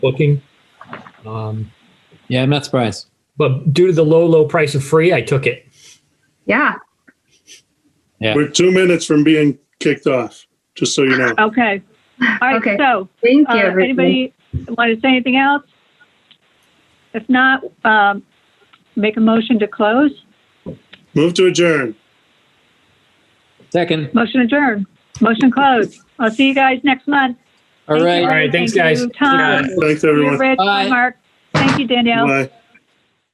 booking. Um, Yeah, I'm not surprised. but due to the low, low price of free, I took it. Yeah, Yeah. We're two minutes from being kicked off, just so you know. Okay. All Okay. right, so, thank uh, you, everybody. anybody want to say anything else? If not, um, make a motion to close, Move to adjourn. Second. motion adjourn, motion close. I'll see you guys next month. All Thank you, right. All right, Lynn. thanks, Thank guys. you, Tom, Thanks, Thank you, everyone. Rich, Bye. Mark. Thank you, Danielle. Bye.